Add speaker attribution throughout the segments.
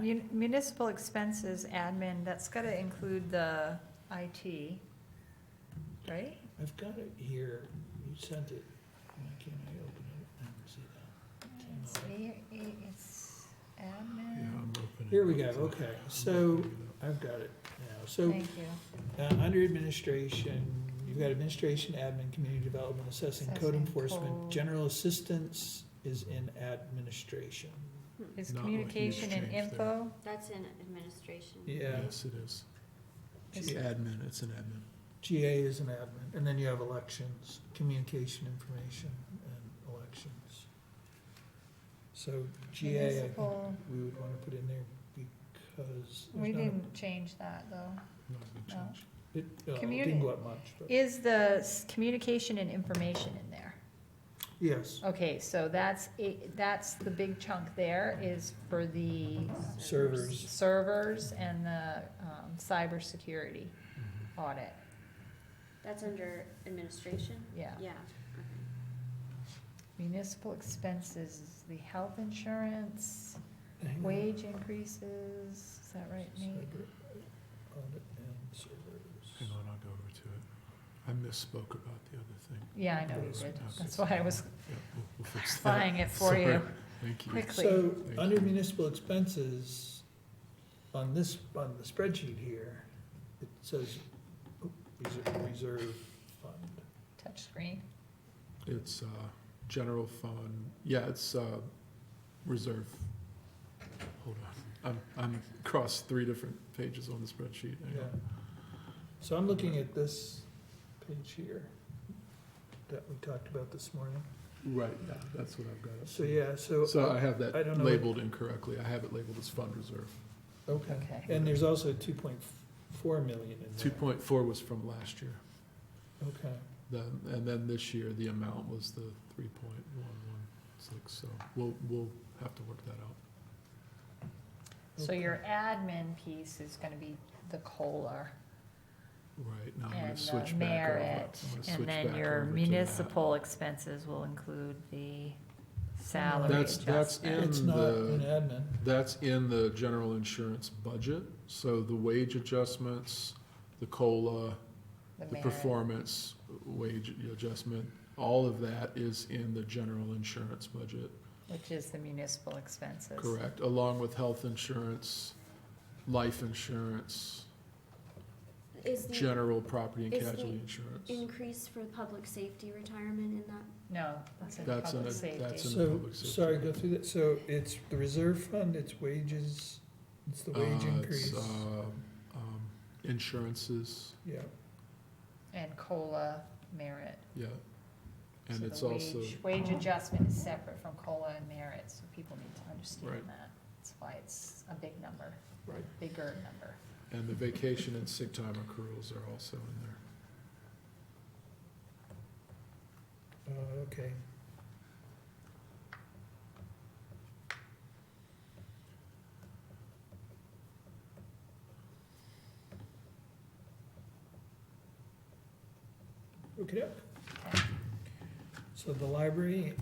Speaker 1: Mun- Municipal expenses, admin, that's gotta include the IT, right?
Speaker 2: I've got it here, you sent it, why can't I open it and see that?
Speaker 1: It's A- A- It's
Speaker 3: Yeah,
Speaker 1: admin,
Speaker 3: I'm opening
Speaker 2: Here we
Speaker 3: it
Speaker 2: go,
Speaker 3: up.
Speaker 2: okay,
Speaker 3: I'm
Speaker 2: so,
Speaker 3: opening it
Speaker 2: I've got it now, so,
Speaker 1: thank you.
Speaker 2: uh, under administration, you've got administration, admin, community development, assessing, code
Speaker 1: Assessing,
Speaker 2: enforcement,
Speaker 1: code.
Speaker 2: general assistance is in administration.
Speaker 1: Is
Speaker 3: Not a huge
Speaker 1: communication and
Speaker 3: change there.
Speaker 1: info,
Speaker 4: That's in administration.
Speaker 3: up.
Speaker 2: Yeah,
Speaker 3: Yes, it is.
Speaker 2: It's
Speaker 3: It's admin, it's an admin.
Speaker 2: GA is an admin, and then you have elections, communication, information, and elections. So GA, I think
Speaker 1: Municipal.
Speaker 2: we would wanna put in there because there's
Speaker 1: we
Speaker 2: not a-
Speaker 1: didn't change that, though.
Speaker 2: Oh.
Speaker 3: Not a big
Speaker 1: No.
Speaker 3: change.
Speaker 2: It, uh,
Speaker 1: Communi-
Speaker 2: didn't go up much, but,
Speaker 1: Is the s- communication and information in there?
Speaker 2: yes,
Speaker 1: Okay, so that's, it- that's the big chunk there is for the
Speaker 2: servers.
Speaker 1: servers and the um, cybersecurity audit,
Speaker 4: That's under administration?
Speaker 1: yeah.
Speaker 4: Yeah.
Speaker 1: Municipal expenses, is the health insurance,
Speaker 2: Hang on.
Speaker 1: wage increases, is that right, Nate?
Speaker 2: Cyber audit and servers.
Speaker 3: Hang on, I'll go over to it. I misspoke about the other thing.
Speaker 1: Yeah, I know you did, that's why I was
Speaker 3: Yeah, we'll- we'll fix that.
Speaker 1: clarifying it for you.
Speaker 3: Sorry. Thank you.
Speaker 1: Quick-
Speaker 2: So,
Speaker 3: Thank
Speaker 2: under
Speaker 3: you.
Speaker 2: municipal expenses, on this, on the spreadsheet here, it says oh, reser- reserve fund.
Speaker 1: Touchscreen,
Speaker 3: It's uh, general fund, yeah, it's uh, reserve. Hold on, I'm, I'm across three different pages on the spreadsheet. Hang
Speaker 2: Yeah.
Speaker 3: on.
Speaker 2: So I'm looking at this page here that we talked about this morning.
Speaker 3: Right, yeah, that's what I've got. up
Speaker 2: So,
Speaker 3: here.
Speaker 2: yeah, so,
Speaker 3: So I have
Speaker 2: I don't
Speaker 3: that
Speaker 2: know what-
Speaker 3: labeled incorrectly. I have it labeled as fund reserve.
Speaker 2: okay.
Speaker 1: okay.
Speaker 2: And there's also two point four million in there.
Speaker 3: Two point four was from last year.
Speaker 2: Okay,
Speaker 3: Then, and then this year, the amount was the three point one one six, so we'll, we'll have to work that out.
Speaker 1: So your admin piece is gonna be the COLA
Speaker 3: Right, now I'm gonna
Speaker 1: and the
Speaker 3: switch back over. I'm
Speaker 1: merit.
Speaker 3: gonna switch
Speaker 1: And then
Speaker 3: back
Speaker 1: your
Speaker 3: over to that.
Speaker 1: municipal expenses will include the salary
Speaker 3: That's- that's
Speaker 1: adjustment.
Speaker 2: it's
Speaker 3: In
Speaker 2: not
Speaker 3: the-
Speaker 2: an admin,
Speaker 3: That's in the general insurance budget, so the wage adjustments, the COLA, the
Speaker 1: merit.
Speaker 3: performance wage adjustment, all of that is in the general insurance budget.
Speaker 1: Which is the municipal expenses.
Speaker 3: Correct, along with health insurance, life insurance,
Speaker 4: Is the
Speaker 3: general property and
Speaker 4: Is the
Speaker 3: casualty insurance.
Speaker 4: increase for public safety retirement in that?
Speaker 1: No, that's in
Speaker 3: That's
Speaker 1: public
Speaker 3: in a- that's
Speaker 1: safety.
Speaker 3: in-
Speaker 2: so,
Speaker 3: public safety.
Speaker 2: sorry, go through that, so it's the reserve fund, it's wages, it's the
Speaker 3: Uh,
Speaker 2: wage
Speaker 3: it's,
Speaker 2: increase,
Speaker 3: um, um, Insurances,
Speaker 2: yeah.
Speaker 1: And COLA merit.
Speaker 3: yeah, and
Speaker 1: So
Speaker 3: it's
Speaker 1: the
Speaker 3: also,
Speaker 1: wage- Wage adjustment is separate from COLA and merit, so people need to understand
Speaker 3: Right.
Speaker 1: that. That's why it's a big number.
Speaker 3: Right.
Speaker 1: Bigger number.
Speaker 3: and the vacation and sick time accruals are also in there.
Speaker 2: Uh, okay. Okay,
Speaker 1: Okay.
Speaker 2: so the library
Speaker 1: And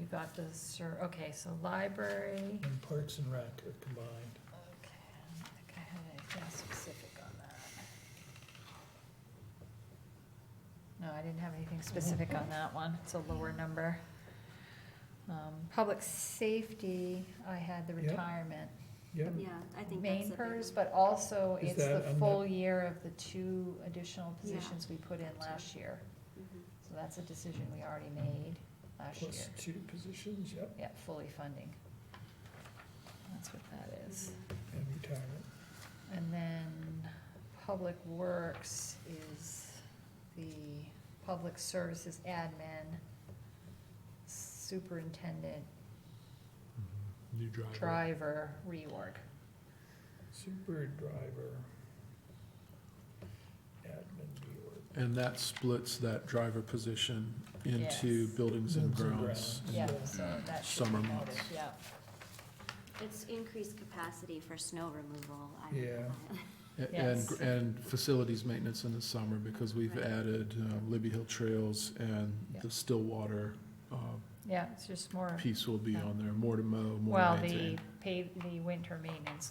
Speaker 1: you got the sur, okay, so library,
Speaker 2: and Parks and Rec are combined.
Speaker 1: okay, I don't think I had anything specific on that. No, I didn't have anything specific on that one, it's a lower number. Um, public safety, I had the
Speaker 2: Yep.
Speaker 1: retirement,
Speaker 2: Yep,
Speaker 4: Yeah, I think that's
Speaker 1: main
Speaker 4: the big one.
Speaker 1: pers, but also
Speaker 2: Is
Speaker 1: it's the
Speaker 2: that on the-
Speaker 1: full year of the two additional
Speaker 4: Yeah.
Speaker 1: positions we put in last year.
Speaker 4: Mhm.
Speaker 1: So that's a decision we already made last year.
Speaker 2: plus two positions, yep,
Speaker 1: Yeah, fully funding. That's what that is.
Speaker 4: Mm-hmm.
Speaker 2: and retirement.
Speaker 1: And then Public Works is the Public Services Admin, Superintendent,
Speaker 3: New driver.
Speaker 1: Driver, Reorg.
Speaker 2: Super driver. Admin Bureau.
Speaker 3: And that splits that driver position into
Speaker 1: Yes.
Speaker 3: buildings and
Speaker 2: Buildings and
Speaker 3: grounds.
Speaker 2: grounds.
Speaker 1: Yeah,
Speaker 2: Yeah.
Speaker 1: so that should be
Speaker 3: Summer
Speaker 1: noted,
Speaker 3: months.
Speaker 1: yeah.
Speaker 4: It's increased capacity for snow removal. I-
Speaker 2: Yeah.
Speaker 3: A- And,
Speaker 1: Yes.
Speaker 3: and facilities maintenance in the summer, because we've
Speaker 4: Right.
Speaker 3: added uh, Libby Hill Trails and
Speaker 1: Yeah.
Speaker 3: the Stillwater uh,
Speaker 1: yeah, it's just more,
Speaker 3: piece will be on there, more to mow, more to
Speaker 1: well,
Speaker 3: maintain.
Speaker 1: the pay, the winter maintenance